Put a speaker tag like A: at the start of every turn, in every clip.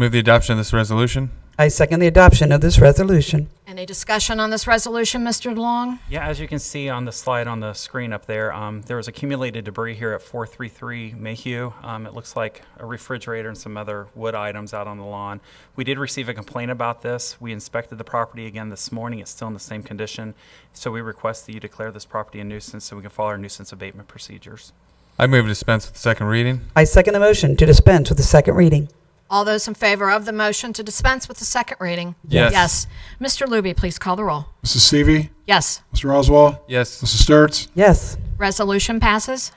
A: Move the adoption of this resolution.
B: I second the adoption of this resolution.
C: Any discussion on this resolution, Mr. DeLong?
D: Yeah, as you can see on the slide on the screen up there, um, there was accumulated debris here at 433 Mayhew. Um, it looks like a refrigerator and some other wood items out on the lawn. We did receive a complaint about this. We inspected the property again this morning. It's still in the same condition. So we request that you declare this property a nuisance so we can follow our nuisance abatement procedures.
A: I move to dispense with the second reading.
B: I second the motion to dispense with the second reading.
C: All those in favor of the motion to dispense with the second reading?
A: Yes.
C: Yes. Mr. Luby, please call the roll.
E: Mrs. Seavey.
C: Yes.
E: Mr. Oswald.
A: Yes.
E: Mrs. Sturts.
B: Yes.
C: Resolution passes.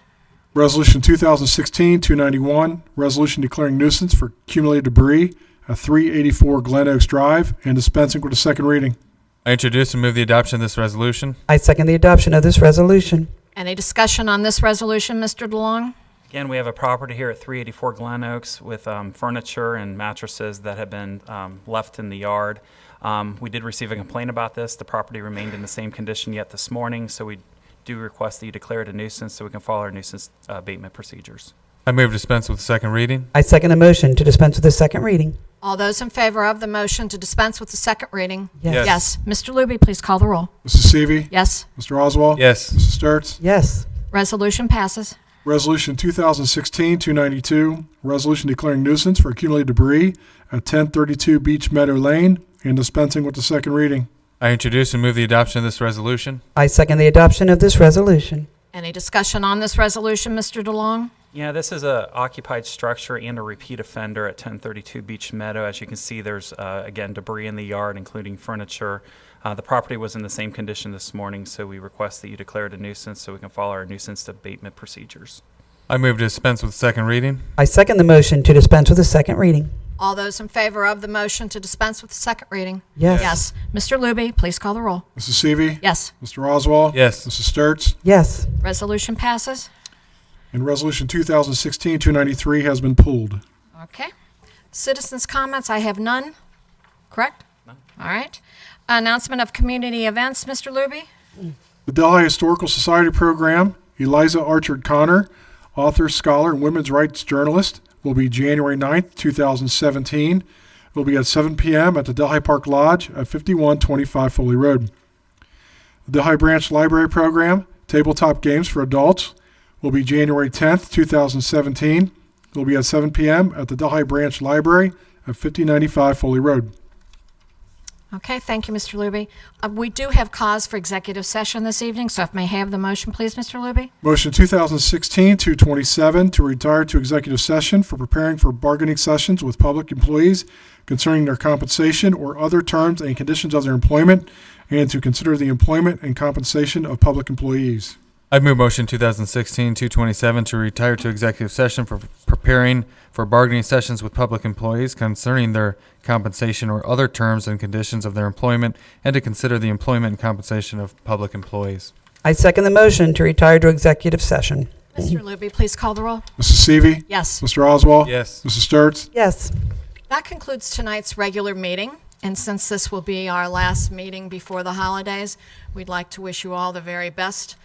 E: Resolution 2016-291, resolution declaring nuisance for accumulated debris at 384 Glen Oaks Drive and dispensing with a second reading.
A: I introduce and move the adoption of this resolution.
B: I second the adoption of this resolution.
C: Any discussion on this resolution, Mr. DeLong?
D: Again, we have a property here at 384 Glen Oaks with um, furniture and mattresses that have been um, left in the yard. Um, We did receive a complaint about this. The property remained in the same condition yet this morning, so we do request that you declare it a nuisance so we can follow our nuisance uh, abatement procedures.
A: I move to dispense with the second reading.
B: I second the motion to dispense with the second reading.
C: All those in favor of the motion to dispense with the second reading?
A: Yes.
C: Yes. Mr. Luby, please call the roll.
E: Mrs. Seavey.
C: Yes.
E: Mr. Oswald.
A: Yes.
E: Mrs. Sturts.
B: Yes.
C: Resolution passes.
E: Resolution 2016-292, resolution declaring nuisance for accumulated debris at 1032 Beach Meadow Lane and dispensing with the second reading.
A: I introduce and move the adoption of this resolution.
B: I second the adoption of this resolution.
C: Any discussion on this resolution, Mr. DeLong?
D: Yeah, this is a occupied structure and a repeat offender at 1032 Beach Meadow. As you can see, there's, uh, again, debris in the yard, including furniture. Uh, The property was in the same condition this morning, so we request that you declare it a nuisance so we can follow our nuisance abatement procedures.
A: I move to dispense with the second reading.
B: I second the motion to dispense with the second reading.
C: All those in favor of the motion to dispense with the second reading?
B: Yes.
C: Yes. Mr. Luby, please call the roll.
E: Mrs. Seavey.
C: Yes.
E: Mr. Oswald.
A: Yes.
E: Mrs. Sturts.
B: Yes.
C: Resolution passes.
E: And resolution 2016-293 has been pulled.
C: Okay. Citizens' comments, I have none, correct? All right. Announcement of community events, Mr. Luby?
E: The Delhi Historical Society program, Eliza Archard Connor, author, scholar, and women's rights journalist, will be January 9th, 2017. It will be at 7 p.m. at the Delhi Park Lodge at 5125 Foley Road. The Delhi Branch Library program, tabletop games for adults, will be January 10th, 2017. It will be at 7 p.m. at the Delhi Branch Library at 5095 Foley Road.
C: Okay, thank you, Mr. Luby. Uh, We do have cause for executive session this evening, so if may have the motion, please, Mr. Luby?
E: Motion 2016-227 to retire to executive session for preparing for bargaining sessions with public employees concerning their compensation or other terms and conditions of their employment, and to consider the employment and compensation of public employees.
A: I move motion 2016-227 to retire to executive session for preparing for bargaining sessions with public employees concerning their compensation or other terms and conditions of their employment and to consider the employment and compensation of public employees.
B: I second the motion to retire to executive session.
C: Mr. Luby, please call the roll.
E: Mrs. Seavey?
C: Yes.
E: Mr. Oswald?
A: Yes.
E: Mrs. Sturts?
B: Yes.
C: That concludes tonight's regular meeting, and since this will be our last meeting before the holidays, we'd like to wish you all the very best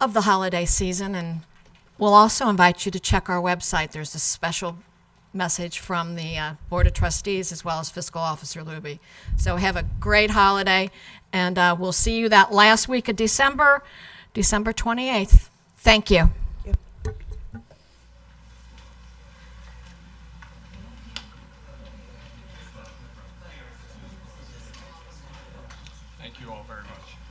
C: of the holiday season, and we'll also invite you to check our website. There's a special message from the uh, Board of Trustees as well as Fiscal Officer Luby. So have a great holiday, and uh, we'll see you that last week of December, December 28th. Thank you.
F: Thank you all very much.